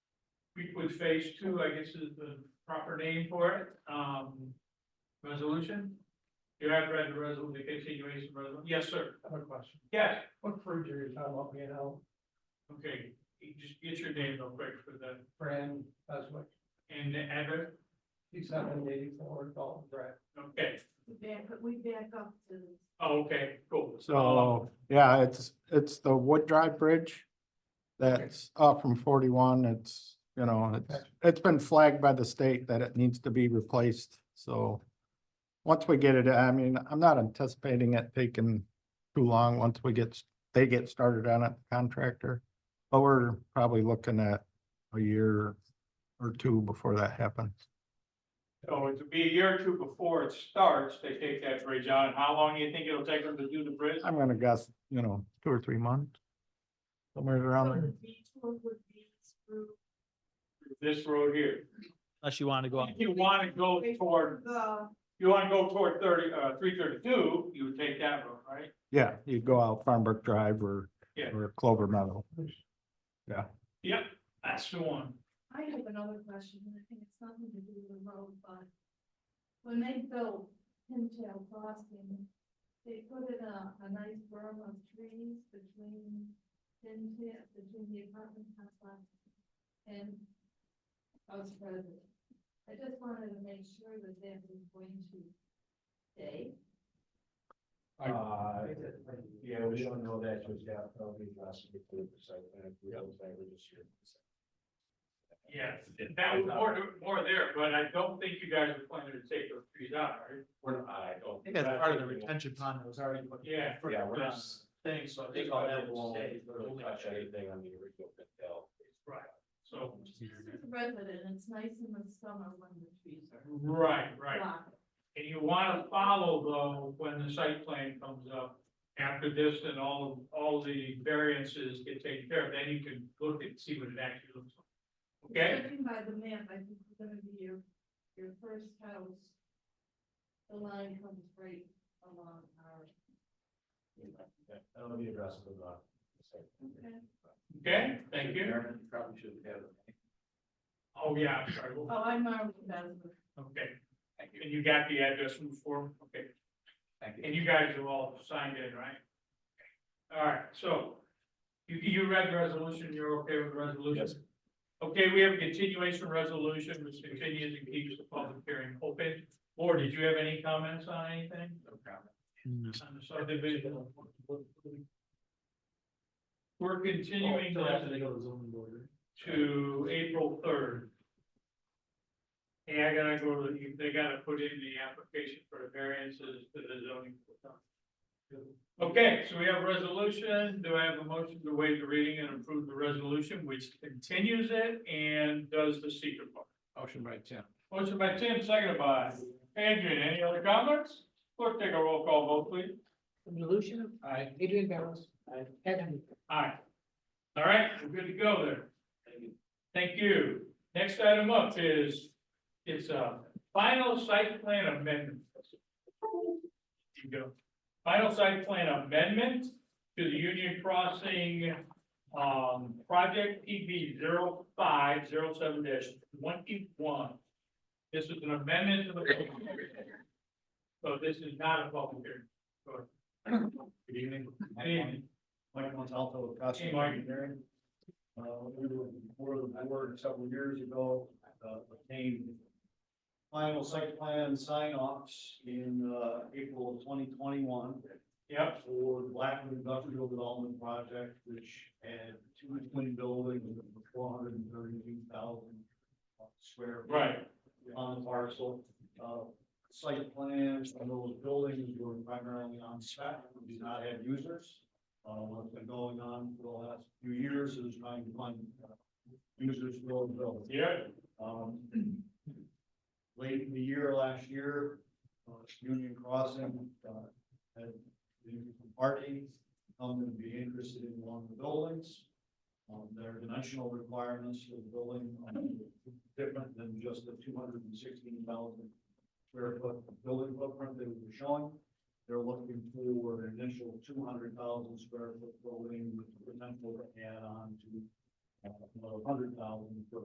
Creekwood Phase Two, I guess is the proper name for it, um, resolution? You have read the resolution, the continuation resolution, yes, sir, I have a question. yes, What fruit are you talking about, you know, okay, you just get your name real quick for the, brand, that's what, and the address, six hundred eighty-four, Dalton Drive. okay, Back, we back up to, oh, okay, cool. Oh. So, Oh, yeah, it's, it's the Wood Drive Bridge. That's up from forty-one. It's, you know, it's, Okay. it's been flagged by the state that it needs to be replaced, so. Once we get it, I mean, I'm not anticipating it taking too long once we get, s- they get started on it, contractor. But we're probably looking at a year or two before that happens. So it would be a year or two before it starts, they take that bridge out, and how long do you think it'll take them to do the bridge? I'm gonna guess, you know, two or three months. Somewhere around so there. the detour would be through This road here, Unless you want to go out. if you wanna go toward the, you wanna go toward thirty, uh, three thirty-two, you would take that road, right? Yeah, you go out Farmbrook Drive or, Yeah. or Clover Meadow. Yep, that's the one. I have another question, and I think it's nothing to do with the road, but when they built Pintail Crossing, they put in a, a nice berm of trees between Pintail, between the apartment complex and us residents. I just wanted to make sure that that was going to stay. Uh, yeah, we don't know that just yet, that'll be last week, the site plan, we don't say we just hear. Yeah, that was more, more there, but I don't think you guys are planning to take those trees out, right? We're not, I I don't. think that's part of the retention pond that was already. put in Yeah. for Yeah, we're not- this Thing, so I They think all got that that will won't stay. really touch anything on the original Patel. Right. So, Just as a resident, it's nice in the summer when the trees are right, right. blocked. And you wanna follow though, when the site plan comes up, after this and all, all the variances get taken care of, then you can look and see what it actually looks like. Okay? Judging by the map, I think it's gonna be your, your first house. The line comes right along our. That'll be addressed in the. site plan. Okay. Okay, thank you. Aaron, you Probably should have. it. Oh, yeah, I'm sorry. Oh, I'm Marvin Basler. Okay. And you got the address from before? Okay. Thank And you guys have all signed in, right? All right, so you, you read the resolution, you're okay with the resolution? Yes. Okay, we have a continuation resolution, which continues and keeps the public hearing open. Or did you have any comments on anything? No No. comment. On the subdivision? We're Oh, continuing that to April third. Hey, I gotta go to, the- they gotta put in the application for the variances to the zoning. board. Okay, so we have a resolution. Do I have a motion to waive the reading and approve the resolution, which continues it and does the secret part? Motion by Tim. Motion by Tim, seconded by Adrian. Any other comments? Clerk, take a roll call vote, please. Lucia, Aye. Adrian Barrows, Ed Henry. Aye. All right, we're good to go there. Thank you. Next item up is, it's a final site plan amendment. Here you go. Final site plan amendment to the Union Crossing, um, project PB 507 twenty-one. This is an amendment to the. public hearing. So this is not a public hearing. Go ahead. Good evening. Good evening. Mike Montalto, Costa Hey, Mike. Engineering. Uh, we were before the board several years ago, uh, obtained final site plan sign offs in, uh, April of twenty twenty-one Yep, for the Blackwood Industrial Development Project, which had two twin buildings with four hundred and thirty-two thousand square. feet right. on the parcel. Uh, site plans on those buildings were primarily on spec, we did not have users. Uh, what's been going on for the last few years is trying to find uh, users for those buildings. Yeah, Um, late in the year last year, uh, Union Crossing, uh, had the party come to be interested in one of the buildings. Um, their dimensional requirements for the building are different than just the two hundred and sixteen thousand square foot building footprint they were showing. They're looking for an initial two hundred thousand square foot building with potential to add on to uh, another hundred thousand square